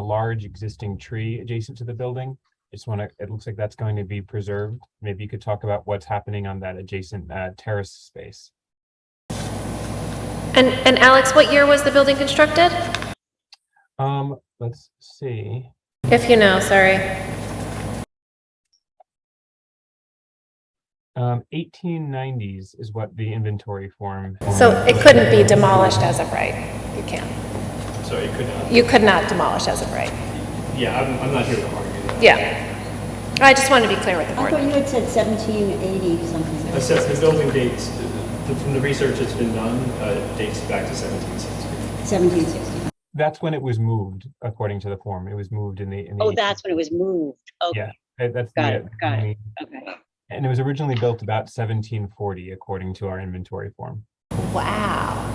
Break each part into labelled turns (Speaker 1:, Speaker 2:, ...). Speaker 1: a large existing tree adjacent to the building. Just want to, it looks like that's going to be preserved. Maybe you could talk about what's happening on that adjacent uh, terrace space.
Speaker 2: And, and Alex, what year was the building constructed?
Speaker 1: Um, let's see.
Speaker 2: If you know, sorry.
Speaker 1: Um, 1890s is what the inventory form.
Speaker 2: So it couldn't be demolished as of right. You can't.
Speaker 3: So you could not,
Speaker 2: You could not demolish as of right.
Speaker 3: yeah, I'm, I'm not here to argue that.
Speaker 2: Yeah. I just wanted to be clear with the
Speaker 4: I thought
Speaker 2: board.
Speaker 4: you had said 1780 something.
Speaker 3: Assess the building dates, the- from the research that's been done, uh, dates back to seventeen sixty.
Speaker 4: 1760.
Speaker 1: That's when it was moved, according to the form. It was moved in the. in the
Speaker 5: Oh, that's when it was moved. Okay,
Speaker 1: Yeah, that- that's.
Speaker 5: Got
Speaker 1: the,
Speaker 5: it, got it.
Speaker 1: only-
Speaker 5: okay.
Speaker 1: And it was originally built about 1740, according to our inventory form.
Speaker 2: Wow.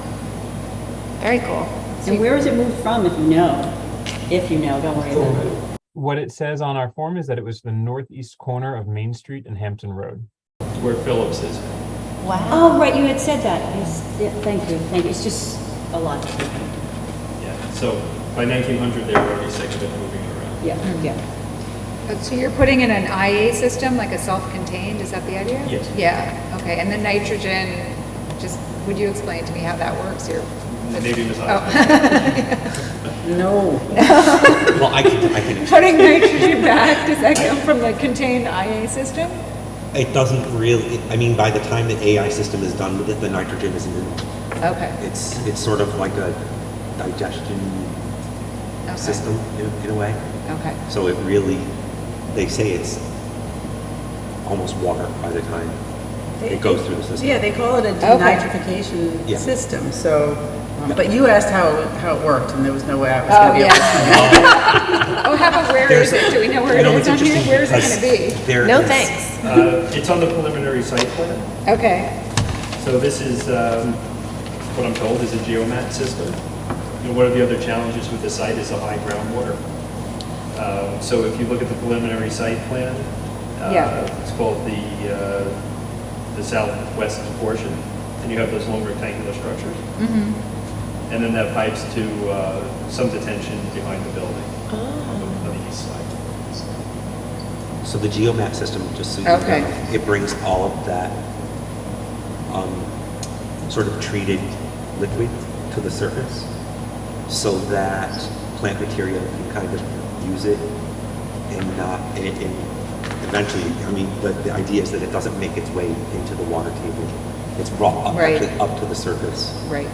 Speaker 2: Very cool.
Speaker 4: And where was it moved from, if you know? If you know, don't worry about it.
Speaker 1: What it says on our form is that it was the northeast corner of Main Street and Hampton Road.
Speaker 3: Where Phillips is,
Speaker 4: Oh, right, you had said that. Yes, yeah, thank you, thank you. It's just a lot.
Speaker 3: yeah, so by nineteen hundred, they were already sick of it moving around.
Speaker 4: Yeah, yeah.
Speaker 6: Uh, So you're putting in an IA system, like a self-contained, is that the idea?
Speaker 3: Yes.
Speaker 6: Yeah, okay, and the nitrogen, just, would you explain to me how that works here?
Speaker 3: Maybe it was
Speaker 4: No.
Speaker 7: Well, I can, I can,
Speaker 6: Putting nitrogen back, does that come from the contained IA system?
Speaker 7: it doesn't really, I mean, by the time the AI system is done with it, the nitrogen isn't in it.
Speaker 6: Okay,
Speaker 7: It's, it's sort of like a digestion
Speaker 6: Okay.
Speaker 7: system in, in a way.
Speaker 6: okay.
Speaker 7: So it really, they say it's almost water by the time it goes through the system.
Speaker 8: Yeah, they call it a
Speaker 6: Okay.
Speaker 7: Yeah.
Speaker 8: denitrification system, so, um, but you asked how, how it worked, and there was no way I was
Speaker 6: Oh,
Speaker 8: gonna be able to.
Speaker 6: yeah. Oh, how about where is it? Do we know where
Speaker 7: You
Speaker 6: it
Speaker 7: know,
Speaker 6: is
Speaker 7: it's
Speaker 6: on here?
Speaker 7: interesting
Speaker 6: Where is
Speaker 7: because
Speaker 6: it gonna
Speaker 7: there
Speaker 2: No
Speaker 7: is-
Speaker 2: thanks.
Speaker 3: Uh, it's on the preliminary site plan.
Speaker 6: be? Okay,
Speaker 3: So this is, um, what I'm told is a geomat system. And one of the other challenges with the site is the high groundwater. Um, So if you look at the preliminary site plan, uh,
Speaker 6: Yeah.
Speaker 3: it's called the, uh, the southwest portion, and you have those long rectangular structures. And then that pipes to uh, some detention behind the building on the- on the east side.
Speaker 7: So the geomap system, just so you know,
Speaker 6: Okay.
Speaker 7: it brings all of that um, sort of treated liquid to the surface so that plant material can kind of use it and not, and, it- and eventually, I mean, the, the idea is that it doesn't make its way into the water table. It's brought up,
Speaker 6: Right.
Speaker 7: actually up to the surface.
Speaker 6: right.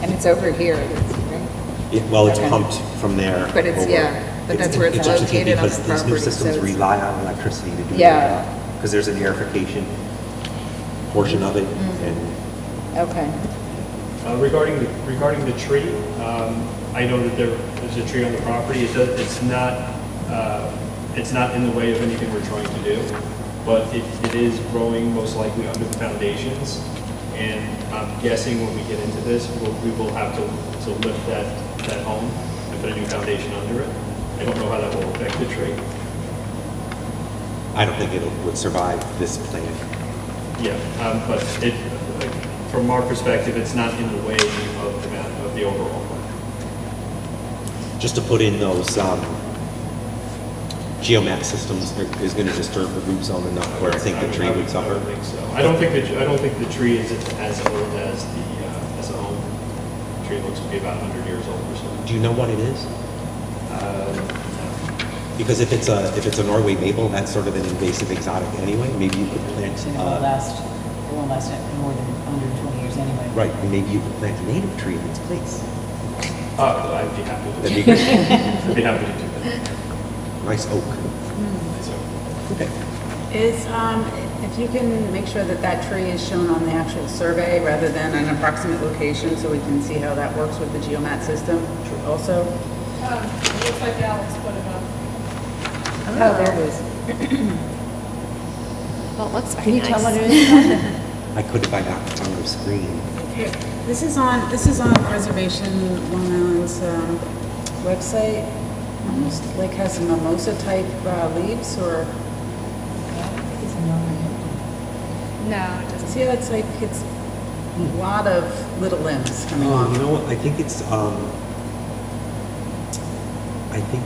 Speaker 6: And it's over here, right?
Speaker 7: Yeah, well, it's
Speaker 6: Okay.
Speaker 7: pumped from there.
Speaker 6: But it's-
Speaker 7: over.
Speaker 6: yeah, but that's where it's
Speaker 7: interesting
Speaker 6: located on the
Speaker 7: Because these new
Speaker 6: property, so
Speaker 7: systems
Speaker 6: it's-
Speaker 7: rely on electricity to do
Speaker 6: Yeah.
Speaker 7: that. Because there's an airification portion of it,
Speaker 6: Mm-hmm.
Speaker 7: and
Speaker 6: Okay.
Speaker 3: Uh, Regarding, the regarding the tree, um, I know that there is a tree on the property. It does, it's not, uh, it's not in the way of anything we're trying to do, but it, it is growing most likely under the foundations. And I'm guessing when we get into this, we'll, we will have to, to lift that, that home and put a new foundation under it. I don't know how that will affect the tree.
Speaker 7: I don't think it would survive this plan.
Speaker 3: Yeah, um, but it, like, from our perspective, it's not in the way of the, ma- of the overall plan.
Speaker 7: Just to put in those um, geomat systems i- is going to disturb the root zone enough where I think the tree would
Speaker 3: I don't
Speaker 7: suffer.
Speaker 3: think so. I don't think the, I don't think the tree is as old as the, uh, as a home. Tree looks to be about 100 years old or so. Uh,
Speaker 7: Do you know what it is? Because if it's a, if it's a Norway maple, that's sort of an invasive exotic anyway. Maybe you could plant
Speaker 8: It
Speaker 7: uh,
Speaker 8: won't last, it won't last more than 120 years anyway.
Speaker 7: Right, and maybe you could plant a native tree in its place.
Speaker 3: Uh, I'd be happy to,
Speaker 7: That'd be great.
Speaker 3: I'd be happy to do that.
Speaker 7: nice oak.
Speaker 3: So-
Speaker 7: Okay.
Speaker 8: Is, um, if you can make sure that that tree is shown on the actual survey rather than an approximate location, so we can see how that works with the geomat system also?
Speaker 6: Looks like Alex put it up.
Speaker 8: Oh, there it is.
Speaker 2: Well, it looks very nice.
Speaker 8: it is?
Speaker 7: I could if I got it on the screen.
Speaker 8: This is on, this is on Reservation Long Island's um, website. Almost like has mimosa type uh, leaves or,
Speaker 6: No, it doesn't.
Speaker 8: see how it's like, it's a lot of little limbs coming
Speaker 7: Um, Oh, you
Speaker 8: off.
Speaker 7: know what, I think it's, um, I think